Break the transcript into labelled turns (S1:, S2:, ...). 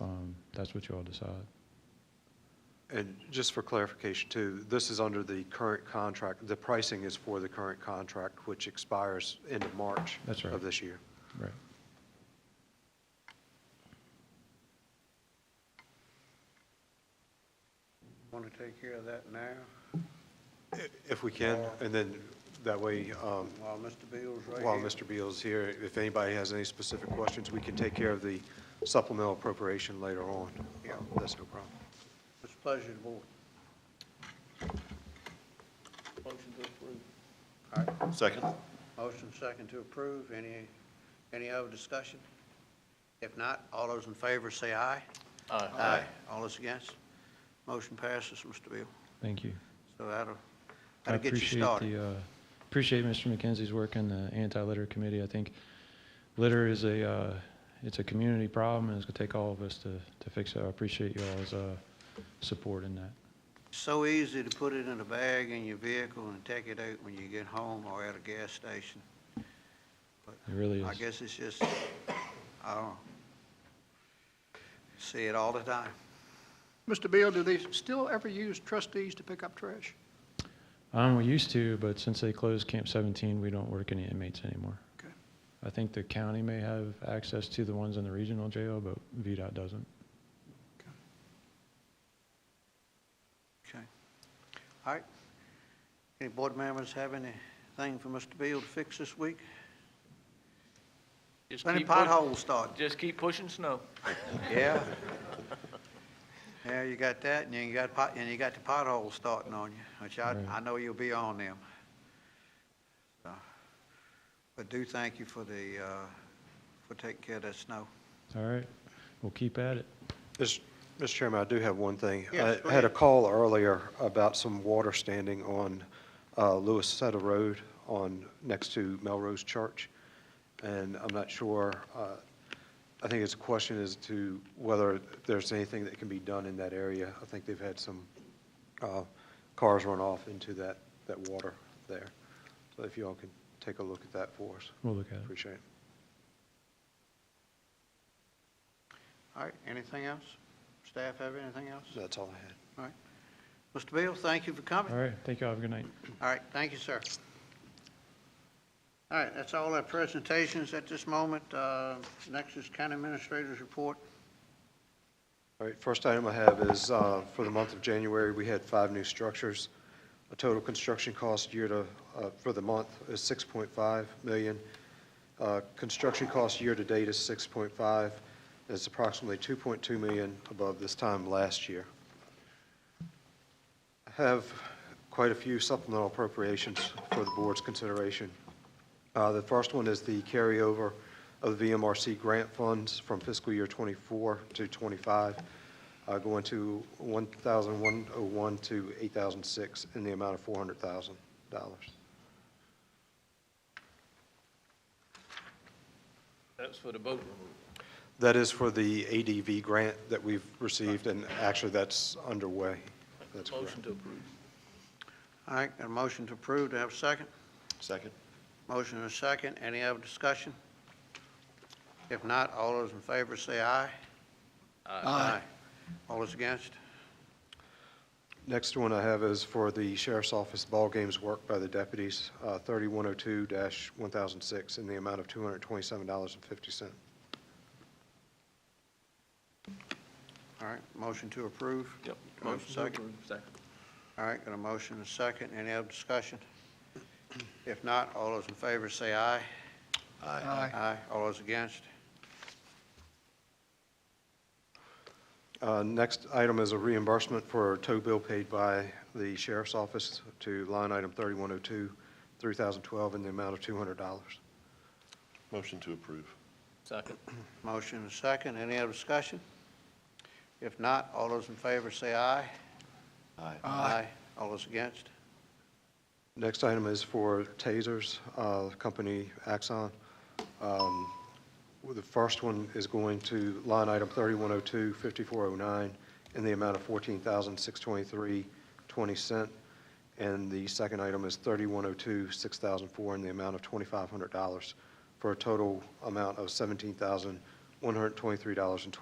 S1: um, that's what y'all decide.
S2: And just for clarification too, this is under the current contract, the pricing is for the current contract, which expires end of March
S1: That's right.
S2: of this year.
S1: Right.
S3: Want to take care of that now
S2: I- If we can, and then that way, um,
S3: while Mr. Beal's right here?
S2: while Mr. Beal's here, if anybody has any specific questions, we can take care of the supplemental appropriation later on.
S3: Yeah.
S2: Um, That's no problem.
S3: It's a pleasure to board.
S4: Motion to approve.
S3: All right,
S5: Second?
S3: motion second to approve. Any, any other discussion? If not, all those in favor say aye. Aye. All those against? Motion passes, Mr. Beal.
S1: Thank you.
S3: So that'll,
S1: I
S3: that'll get you
S1: appreciate
S3: started.
S1: the, uh, Appreciate Mr. McKenzie's work in the anti-litter committee. I think litter is a, uh, it's a community problem, and it's going to take all of us to, to fix it. I appreciate y'all's uh, support in that.
S3: So easy to put it in a bag in your vehicle and take it out when you get home or at a gas station.
S1: It really
S3: I
S1: is.
S3: guess it's just, I don't see it all the time.
S6: Mr. Beal, do they still ever use trustees to pick up trash?
S1: Um, we used to, but since they closed Camp 17, we don't work any inmates anymore.
S6: Okay.
S1: I think the county may have access to the ones in the regional jail, but VDOT doesn't.
S3: Okay. All right. Any board members have anything for Mr. Beal to fix this week?
S4: Just
S3: When the
S4: keep push-
S3: potholes start?
S4: Just keep pushing snow.
S3: Yeah. Yeah, you got that, and you got pot, and you got the potholes starting on you, which I,
S1: Right.
S3: I know you'll be on them. So, But do thank you for the, uh, for taking care of that snow.
S1: All right, we'll keep at it.
S2: Mis- Mr. Chairman, I do have one thing.
S3: Yes, go
S2: I had a
S3: ahead.
S2: call earlier about some water standing on uh, Lewis Seta Road on, next to Melrose Church, and I'm not sure, uh, I think it's a question as to whether there's anything that can be done in that area. I think they've had some uh, cars run off into that, that water there. So if you all could take a look at that for us,
S1: We'll look at it.
S2: appreciate it.
S3: All right, anything else? Staff have anything else?
S2: That's all I had.
S3: All right. Mr. Beal, thank you for coming.
S1: All right, thank y'all, have a good night.
S3: All right, thank you, sir. All right, that's all our presentations at this moment. Uh, Next is County Administrator's Report.
S2: All right, first item I have is, uh, for the month of January, we had five new structures. A total construction cost year to, uh, for the month is 6.5 million. Uh, Construction cost year-to-date is 6.5. It's approximately 2.2 million above this time last year. I have quite a few supplemental appropriations for the board's consideration. Uh, The first one is the carryover of the VMRC grant funds from fiscal year '24 to '25, going to 1,101 to 8,006 in the amount of $400,000.
S4: That's for the boat removal.
S2: That is for the ADV grant that we've received, and actually, that's underway. That's correct.
S4: Motion to approve.
S3: All right, got a motion to approve. Do I have a second?
S5: Second?
S3: Motion and a second. Any other discussion? If not, all those in favor say aye. Aye. All those against?
S2: Next one I have is for the Sheriff's Office Ball Games Work by the Deputies, uh, 3102-1006, in the amount of $227.50.
S3: All right, motion to approve.
S4: Yep.
S3: Do I have a
S4: Motion to
S3: second?
S4: approve. Second.
S3: All right, got a motion and a second. Any other discussion? If not, all those in favor say aye.
S6: Aye.
S3: Aye. All those against?
S2: Uh, Next item is a reimbursement for a tow bill paid by the sheriff's office to line item 3102, 3012, in the amount of $200.
S5: Motion to approve.
S4: Second.
S3: Motion and a second. Any other discussion? If not, all those in favor say aye.
S5: Aye.
S3: All those against?
S2: Next item is for tasers, uh, company Axon. Um, well, The first one is going to line item 3102, 5409, in the amount of $14,623.20. And the second item is 3102, 6004, in the amount of $2,500, for a total amount of $17,123.20.